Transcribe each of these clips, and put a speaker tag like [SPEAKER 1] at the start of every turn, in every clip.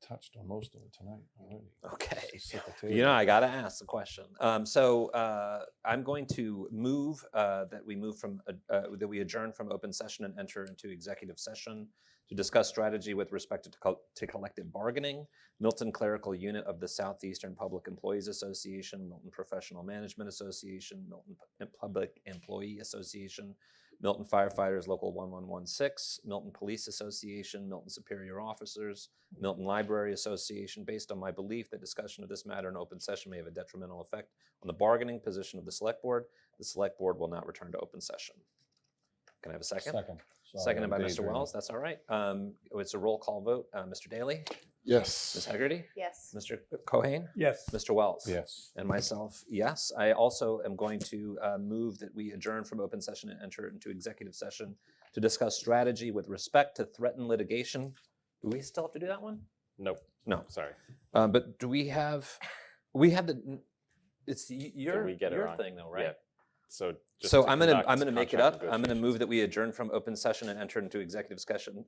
[SPEAKER 1] touched on most of it tonight already.
[SPEAKER 2] Okay.
[SPEAKER 1] Just at the
[SPEAKER 2] You know,
[SPEAKER 1] table.
[SPEAKER 2] I got to ask the question. Um, so uh, I'm going to move uh, that we move from uh, uh, that we adjourn from open session and enter into executive session to discuss strategy with respect to, co- to collective bargaining. Milton Clerical Unit of the Southeastern Public Employees Association, Milton Professional Management Association, Milton P- Public Employee Association, Milton Firefighters Local 1116, Milton Police Association, Milton Superior Officers, Milton Library Association, based on my belief that discussion of this matter in open session may have a detrimental effect on the bargaining position of the select board, the select board will not return to open session. Can I have a second?
[SPEAKER 1] Second. Sorry,
[SPEAKER 2] Seconded
[SPEAKER 1] I'm
[SPEAKER 2] by Mr.
[SPEAKER 1] daydreaming.
[SPEAKER 2] Wells, that's all right. Um, It's a roll call vote. Uh, Mr. Daly, Ms.
[SPEAKER 3] Yes.
[SPEAKER 2] Hegarty,
[SPEAKER 4] Yes.
[SPEAKER 2] Mr. Cohen,
[SPEAKER 5] Yes.
[SPEAKER 2] Mr. Wells.
[SPEAKER 1] Yes.
[SPEAKER 2] And myself, yes. I also am going to uh, move that we adjourn from open session and enter into executive session to discuss strategy with respect to threatened litigation. Do we still have to do that one?
[SPEAKER 6] Nope.
[SPEAKER 2] No.
[SPEAKER 6] Sorry.
[SPEAKER 2] Um, but do we have, we had the, it's y- your,
[SPEAKER 6] we get it
[SPEAKER 2] your
[SPEAKER 6] wrong?
[SPEAKER 2] thing though,
[SPEAKER 6] Yeah.
[SPEAKER 2] right?
[SPEAKER 6] So. just
[SPEAKER 2] So
[SPEAKER 6] to
[SPEAKER 2] I'm gonna,
[SPEAKER 6] conduct
[SPEAKER 2] I'm gonna make it up.
[SPEAKER 6] contract
[SPEAKER 2] I'm gonna
[SPEAKER 6] negotiations.
[SPEAKER 2] move that we adjourn from open session and enter into executive session,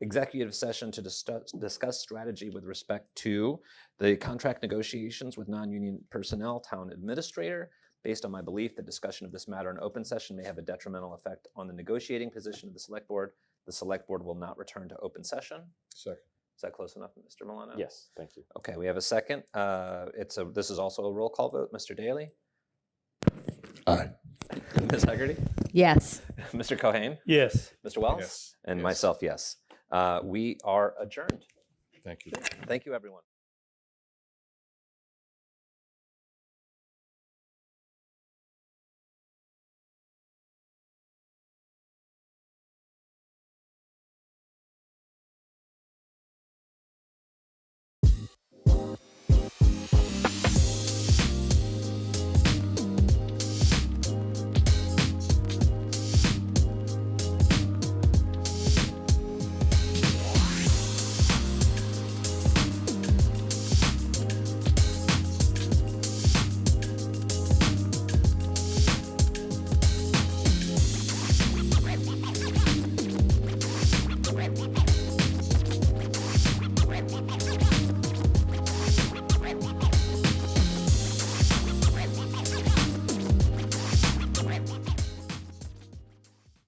[SPEAKER 2] executive session to discuss, discuss strategy with respect to the contract negotiations with non-union personnel, town administrator, based on my belief that discussion of this matter in open session may have a detrimental effect on the negotiating position of the select board. The select board will not return to open session.
[SPEAKER 1] Second.
[SPEAKER 2] Is that close enough, Mr. Milano?
[SPEAKER 6] Yes, thank you.
[SPEAKER 2] Okay, we have a second. Uh, It's a, this is also a roll call vote. Mr. Daly?
[SPEAKER 3] Aye.
[SPEAKER 2] Ms. Hegarty?
[SPEAKER 4] Yes.
[SPEAKER 2] Mr. Cohen?
[SPEAKER 5] Yes.
[SPEAKER 2] Mr. Wells?
[SPEAKER 1] Yes.
[SPEAKER 2] And
[SPEAKER 1] Yes.
[SPEAKER 2] myself, yes. Uh, We are adjourned.
[SPEAKER 1] Thank you.
[SPEAKER 2] Thank you, everyone.